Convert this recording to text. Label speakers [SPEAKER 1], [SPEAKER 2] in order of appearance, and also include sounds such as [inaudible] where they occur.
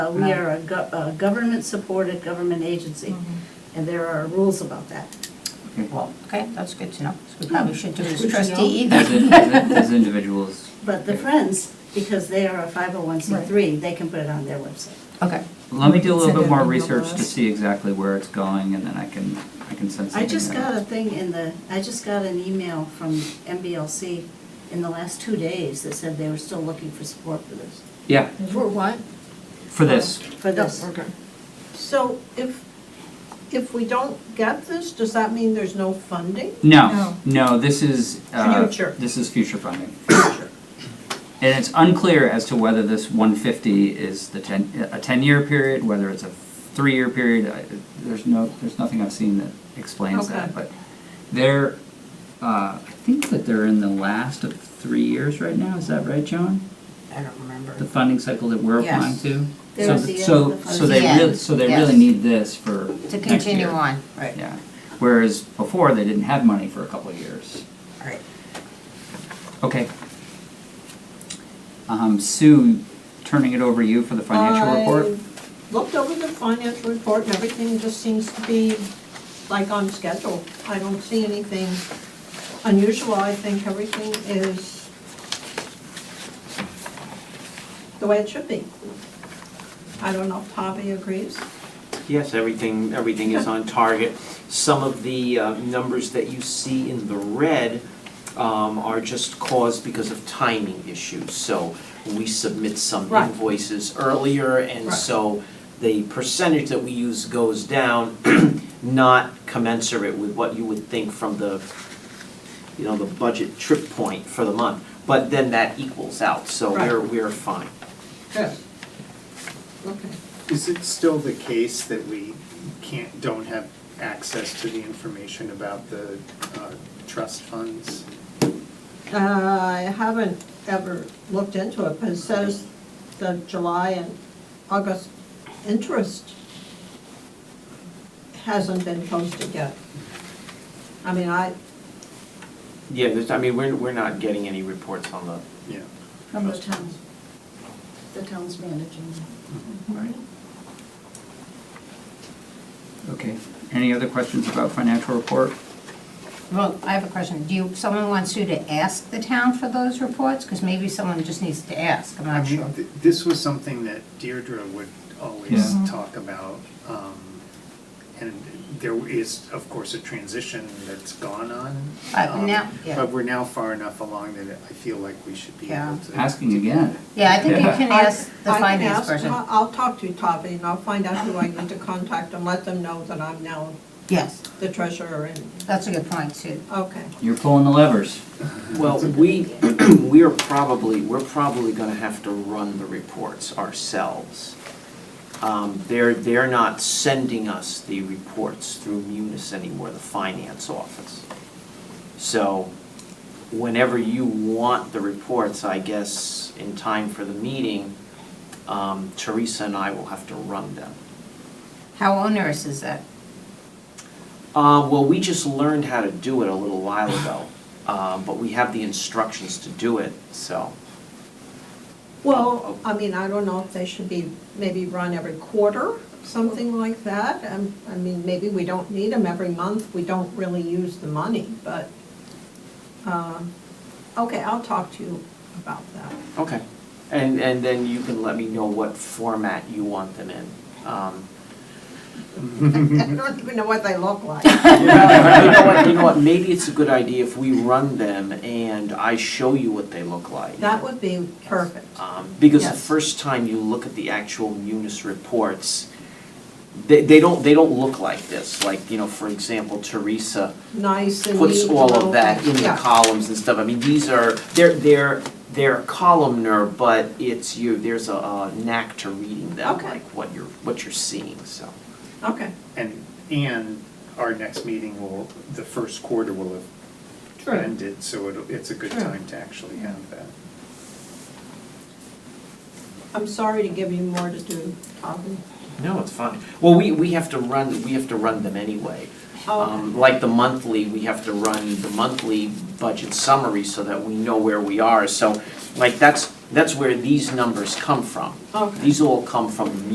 [SPEAKER 1] Uh, We are a go- a government-supported government agency,
[SPEAKER 2] Mm-hmm.
[SPEAKER 1] and there are rules about that.
[SPEAKER 3] Well, okay, that's good to know. So we probably should do it as trustee
[SPEAKER 4] As,
[SPEAKER 3] either.
[SPEAKER 4] in- as in- as individuals.
[SPEAKER 1] But the
[SPEAKER 4] okay.
[SPEAKER 1] Friends, because they are a 501c3, they can put it on their website.
[SPEAKER 3] [laughs] Okay,
[SPEAKER 4] Let me do
[SPEAKER 5] Send
[SPEAKER 4] a little bit
[SPEAKER 5] it
[SPEAKER 4] more
[SPEAKER 5] in the
[SPEAKER 4] research to
[SPEAKER 5] list.
[SPEAKER 4] see exactly where it's going, and then I can, I can send something.
[SPEAKER 1] I just
[SPEAKER 4] out.
[SPEAKER 1] got a thing in the, I just got an email from MBLC in the last two days that said they were still looking for support for Oh, this,
[SPEAKER 4] Yeah,
[SPEAKER 2] For what?
[SPEAKER 4] for this,
[SPEAKER 1] for this.
[SPEAKER 2] Okay. So if, if we don't get this, does that mean there's no funding?
[SPEAKER 4] no, no, this is, uh,
[SPEAKER 2] Future.
[SPEAKER 4] this is future funding. And it's unclear as to whether this one fifty is the ten, a ten-year period, whether it's a three-year period, I, there's no, there's nothing I've seen that explains that,
[SPEAKER 2] Okay.
[SPEAKER 4] but they're, uh, I think that they're in the last of three years right now, is that right, Joan?
[SPEAKER 3] I don't remember.
[SPEAKER 4] The funding cycle that we're applying
[SPEAKER 3] Yes.
[SPEAKER 4] to?
[SPEAKER 1] They're
[SPEAKER 4] So
[SPEAKER 1] at
[SPEAKER 4] th-
[SPEAKER 1] the
[SPEAKER 4] So,
[SPEAKER 1] end of the
[SPEAKER 4] so
[SPEAKER 1] funding.
[SPEAKER 4] they
[SPEAKER 3] The
[SPEAKER 4] really,
[SPEAKER 3] end,
[SPEAKER 4] so they
[SPEAKER 3] yes.
[SPEAKER 4] really need this for
[SPEAKER 3] To
[SPEAKER 4] next
[SPEAKER 3] continue
[SPEAKER 4] year.
[SPEAKER 3] on, right.
[SPEAKER 4] Yeah, whereas before, they didn't have money for a couple of years.
[SPEAKER 3] Right.
[SPEAKER 4] Okay. Um, Sue, turning it over to you for the financial report?
[SPEAKER 2] I Looked over the financial report and everything just seems to be like on schedule. I don't see anything unusual. I think everything is the way it should be. I don't know if Tavi agrees.
[SPEAKER 6] Yes, everything, everything is on target. Some of the uh, numbers that you see in the red um, are just caused because of timing issues. So we submit some
[SPEAKER 2] Right.
[SPEAKER 6] invoices earlier, and
[SPEAKER 2] Right.
[SPEAKER 6] so the percentage that we use goes down, [clears throat] not commensurate with what you would think from the, you know, the budget trip point for the month. But then that equals out, so
[SPEAKER 2] Right.
[SPEAKER 6] we're, we're fine.
[SPEAKER 2] Good. Okay.
[SPEAKER 7] Is it still the case that we can't, don't have access to the information about the uh, trust funds?
[SPEAKER 2] Uh, I haven't ever looked into it, but it says the July and August interest hasn't been posted yet. I mean, I,
[SPEAKER 6] Yeah, there's, I mean, we're, we're not getting any reports on the
[SPEAKER 7] Yeah.
[SPEAKER 1] From the town, the town's managing.
[SPEAKER 4] Okay. Any other questions about financial report?
[SPEAKER 3] Well, I have a question. Do you, someone wants you to ask the town for those reports? Because maybe someone just needs to ask, I'm
[SPEAKER 7] I
[SPEAKER 3] not sure.
[SPEAKER 7] mean, th- this was something that Deirdre would always
[SPEAKER 3] Mm-hmm.
[SPEAKER 7] talk about. um, And there is, of course, a transition that's gone on.
[SPEAKER 3] But
[SPEAKER 7] um,
[SPEAKER 3] now- yeah.
[SPEAKER 7] But we're now far enough along that I feel like we should be
[SPEAKER 3] Yeah.
[SPEAKER 7] able to.
[SPEAKER 4] Asking again.
[SPEAKER 3] Yeah, I think you
[SPEAKER 4] Yeah.
[SPEAKER 3] can ask the
[SPEAKER 2] I can
[SPEAKER 3] finance
[SPEAKER 2] ask-
[SPEAKER 3] person.
[SPEAKER 2] I'll- I'll talk to Tavi and I'll find out who I need to contact and let them know that I'm now
[SPEAKER 3] Yes,
[SPEAKER 2] the treasurer and,
[SPEAKER 3] that's a good point, Sue.
[SPEAKER 2] okay.
[SPEAKER 4] You're pulling the levers.
[SPEAKER 6] Well, we, [clears throat] we are probably, we're probably gonna have to run the reports ourselves. Um, They're, they're not sending us the reports through Munis anymore, the finance office. So whenever you want the reports, I guess, in time for the meeting, um, Teresa and I will have to run them.
[SPEAKER 3] How onerous is that?
[SPEAKER 6] Uh, well, we just learned how to do it a little while ago, um, but we have the instructions to do it, so.
[SPEAKER 2] Well, I mean, I don't know if they should be, maybe run every quarter, something like that. Um, I mean, maybe we don't need them every month, we don't really use the money, but, um, okay, I'll talk to you about that. [laughs]
[SPEAKER 6] Okay. And, and then you can let me know what format you want them in. Um,
[SPEAKER 2] I
[SPEAKER 6] Mm-hmm.
[SPEAKER 2] don't even know what they look like.
[SPEAKER 6] [laughs] You know what, you know what, maybe it's a good idea if we run them and I show you what they look like.
[SPEAKER 2] That would be perfect.
[SPEAKER 6] Um, Because the
[SPEAKER 2] Yes.
[SPEAKER 6] first time you look at the actual Munis reports, they, they don't, they don't look like this. Like, you know, for example, Teresa
[SPEAKER 2] Nice and neat.
[SPEAKER 6] puts all
[SPEAKER 2] little
[SPEAKER 6] of that
[SPEAKER 2] thing.
[SPEAKER 6] in the
[SPEAKER 2] Yeah.
[SPEAKER 6] columns and stuff. I mean, these are, they're, they're, they're columnar, but it's you, there's a- a knack to reading them,
[SPEAKER 2] Okay.
[SPEAKER 6] like what you're, what you're seeing, so.
[SPEAKER 2] Okay,
[SPEAKER 7] And, and our next meeting will, the first quarter will have
[SPEAKER 2] True.
[SPEAKER 7] ended, so it'll, it's a good
[SPEAKER 2] True.
[SPEAKER 7] time to actually have that.
[SPEAKER 2] I'm sorry to give you more to do, Tavi.
[SPEAKER 6] No, it's fine. Well, we, we have to run, we have to run them anyway. Um, Like the monthly, we have to run the monthly budget summary so that we know where we are. So, like, that's, that's where these numbers come from.
[SPEAKER 2] Okay.
[SPEAKER 6] These all come from the